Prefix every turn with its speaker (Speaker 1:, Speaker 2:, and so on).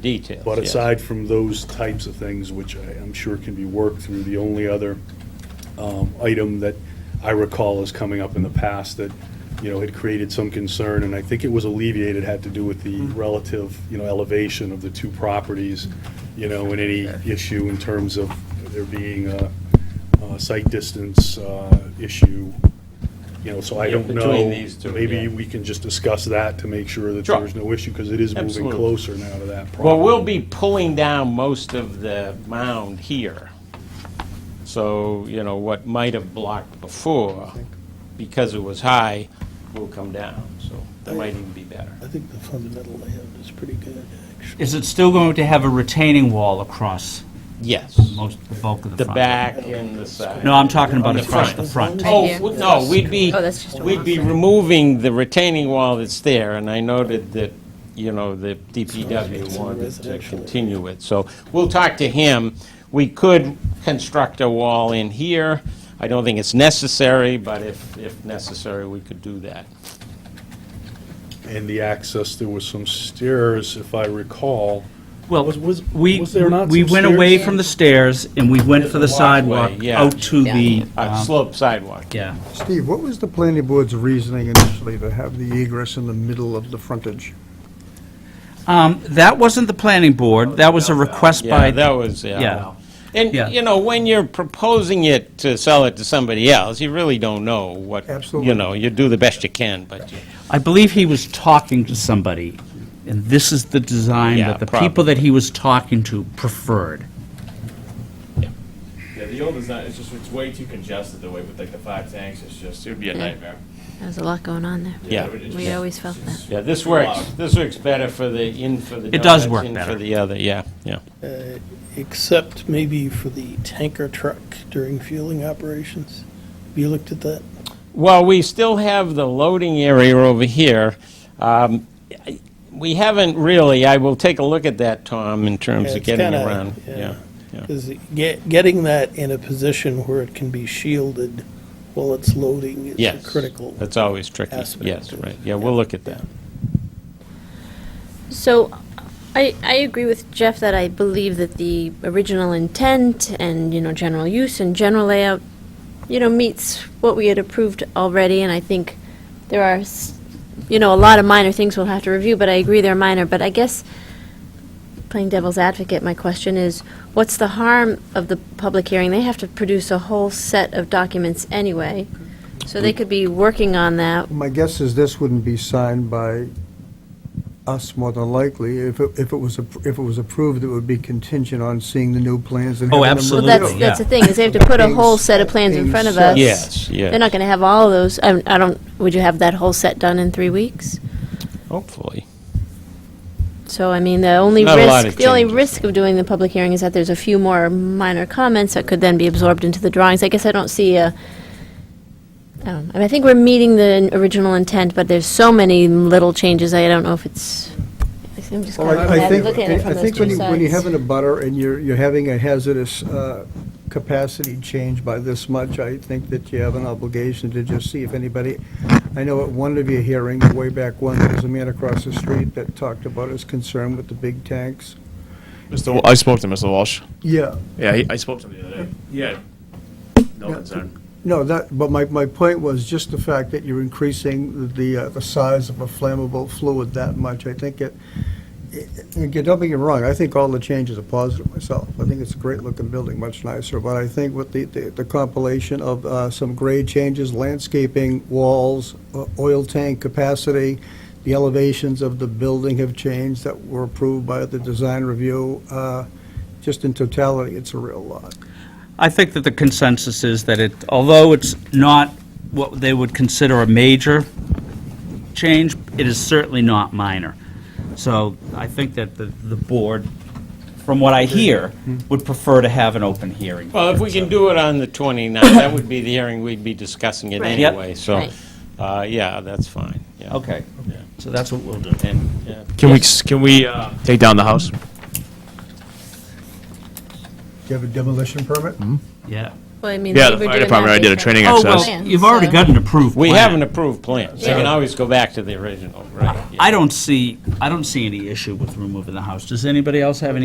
Speaker 1: details.
Speaker 2: But
Speaker 1: yes.
Speaker 2: aside from those types of things, which I- I'm sure can be worked through, the only other um, item that I recall is coming up in the past that, you know, had created some concern, and I think it was alleviated, had to do with the
Speaker 1: Mm-hmm.
Speaker 2: relative, you know, elevation of the two properties, you know, and any issue in terms of there being a a site distance uh, issue, you know, so I
Speaker 1: Yeah,
Speaker 2: don't know.
Speaker 1: between these two, yeah.
Speaker 2: Maybe we can just discuss that to make sure that
Speaker 1: Sure.
Speaker 2: there's no issue, because it is moving
Speaker 1: Absolutely.
Speaker 2: closer now to that problem.
Speaker 1: Well, we'll be pulling down most of the mound here. So, you know, what might have blocked before, because it was high, will come down, so that might even be better.
Speaker 3: I think the fundamental layout is pretty good, actually.
Speaker 4: Is it still going to have a retaining wall across
Speaker 1: Yes,
Speaker 4: most, the bulk of the
Speaker 1: the
Speaker 4: front?
Speaker 1: back and the side.
Speaker 4: No, I'm talking about
Speaker 1: the
Speaker 4: across
Speaker 1: front.
Speaker 4: the front.
Speaker 5: Right
Speaker 1: Oh,
Speaker 5: here.
Speaker 1: w- no, we'd be,
Speaker 5: Oh, that's just a
Speaker 1: we'd be
Speaker 5: wall.
Speaker 1: removing the retaining wall that's there, and I noted that, you know, the DPW wanted to
Speaker 3: residential area.
Speaker 1: continue it, so we'll talk to him. We could construct a wall in here. I don't think it's necessary, but if, if necessary, we could do that.
Speaker 2: And the access, there was some stairs, if I recall.
Speaker 4: Well,
Speaker 2: Was- was-
Speaker 4: we,
Speaker 2: was there not
Speaker 4: we
Speaker 2: some
Speaker 4: went away
Speaker 2: stairs?
Speaker 4: from the stairs and we went for the
Speaker 1: There's a walkway,
Speaker 4: sidewalk
Speaker 1: yeah.
Speaker 4: out to the,
Speaker 1: Uh,
Speaker 4: um,
Speaker 1: Slope sidewalk.
Speaker 4: yeah.
Speaker 6: Steve, what was the planning board's reasoning initially to have the egress in the middle of the frontage?
Speaker 4: Um, That wasn't the planning board, that was a request
Speaker 1: Yeah,
Speaker 4: by,
Speaker 1: that was, yeah.
Speaker 4: yeah.
Speaker 1: And,
Speaker 4: Yeah.
Speaker 1: you know, when you're proposing it to sell it to somebody else, you really don't know what, you
Speaker 6: Absolutely.
Speaker 1: know, you do the best you can, but you
Speaker 4: I believe he was talking to somebody, and this is the design
Speaker 1: Yeah,
Speaker 4: that the people that he was talking to preferred.
Speaker 7: Yeah, the old design, it's just, it's way too congested the way with like the five tanks, it's just, it would be a nightmare.
Speaker 5: There's a lot going on there.
Speaker 1: Yeah.
Speaker 7: it would- it's
Speaker 5: We
Speaker 7: just-
Speaker 5: always felt that.
Speaker 1: Yeah, this works, this works better for the, in for the.
Speaker 4: It does
Speaker 1: donuts,
Speaker 4: work
Speaker 1: In
Speaker 4: better.
Speaker 1: for the other, yeah, yeah.
Speaker 3: uh, Except maybe for the tanker truck during fueling operations. Have you looked at that?
Speaker 1: Well, we still have the loading area over here. Um, I- We haven't really, I will take a look at that, Tom, in terms
Speaker 3: Yeah,
Speaker 1: of
Speaker 3: it's
Speaker 1: getting
Speaker 3: kinda-
Speaker 1: around,
Speaker 3: yeah.
Speaker 1: yeah, yeah.
Speaker 3: Because get, getting that in a position where it can be shielded while it's loading is a
Speaker 1: Yes.
Speaker 3: critical.
Speaker 1: That's always tricky,
Speaker 3: aspect
Speaker 1: yes,
Speaker 3: of-
Speaker 1: right, yeah, we'll look at that.
Speaker 5: So I, I agree with Jeff that I believe that the original intent and, you know, general use and general layout, you know, meets what we had approved already, and I think there are, s- you know, a lot of minor things we'll have to review, but I agree they're minor, but I guess, playing devil's advocate, my question is, what's the harm of the public hearing? They have to produce a whole set of documents anyway, so they could be working on that.
Speaker 6: My guess is this wouldn't be signed by us more than likely. If it, if it was, appro- if it was approved, it would be contingent on seeing the new plans and
Speaker 4: Oh,
Speaker 6: having them
Speaker 4: absolutely.
Speaker 6: reviewed.
Speaker 5: Well, that's,
Speaker 4: Yeah.
Speaker 5: that's the thing, is they have to put a whole set of plans in front of us.
Speaker 1: Yes, yes.
Speaker 5: They're not gonna have all of those, I, I don't, would you have that whole set done in three weeks?
Speaker 1: Hopefully.
Speaker 5: So, I mean, the only
Speaker 1: Not a lot
Speaker 5: risk,
Speaker 1: of
Speaker 5: the only
Speaker 1: changes.
Speaker 5: risk of doing the public hearing is that there's a few more minor comments that could then be absorbed into the drawings. I guess I don't see a, I don't, I mean, I think we're meeting the original intent, but there's so many little changes, I don't know if it's, I'm just
Speaker 6: Well,
Speaker 5: kinda
Speaker 6: I- I
Speaker 5: mad
Speaker 6: think,
Speaker 5: looking at it
Speaker 6: I
Speaker 5: from those
Speaker 6: think when
Speaker 5: two
Speaker 6: you, when you have
Speaker 5: sides.
Speaker 6: an abutter and you're, you're having a hazardous uh, capacity change by this much, I think that you have an obligation to just see if anybody, I know at one of your hearings, way back when, there was a man across the street that talked about his concern with the big tanks.
Speaker 7: Mr. Wa- I spoke to Mr. Walsh.
Speaker 6: Yeah,
Speaker 7: Yeah, he- I spoke to him the other day. Yeah. No concern.
Speaker 6: no, that, but my, my point was just the fact that you're increasing the, uh, the size of a flammable fluid that much. I think it, it- it- don't get me wrong, I think all the changes are positive myself. I think it's a great-looking building, much nicer, but I think with the, the the compilation of uh, some grade changes, landscaping, walls, o- oil tank capacity, the elevations of the building have changed that were approved by the design review, uh, just in totality, it's a real lot.
Speaker 4: I think that the consensus is that it, although it's not what they would consider a major change, it is certainly not minor. So I think that the, the board, from what I hear, would prefer to have an open hearing.
Speaker 1: Hmm. Well, if we can do it on the 29th, that would be the hearing we'd be discussing it
Speaker 5: Right. Yep.
Speaker 1: anyway, so,
Speaker 5: Right.
Speaker 1: uh, yeah, that's fine, yeah.
Speaker 4: Okay, so that's what we'll do.
Speaker 1: And, yeah.
Speaker 7: Can we, can we, uh, take down the house?
Speaker 6: Do you have a demolition permit?
Speaker 4: Yeah.
Speaker 5: Well, I mean,
Speaker 7: Yeah,
Speaker 5: they
Speaker 7: the
Speaker 5: were
Speaker 7: fire
Speaker 5: doing that
Speaker 7: department already did a
Speaker 5: different.
Speaker 4: Oh,
Speaker 7: training Access.
Speaker 4: well, you've already
Speaker 5: So-
Speaker 4: got an approved plan.
Speaker 1: We have an approved plan, so you can
Speaker 5: Yeah.
Speaker 1: always go back to the original, right? yeah.
Speaker 4: I don't see, I don't see any issue with removing the house. Does anybody else have any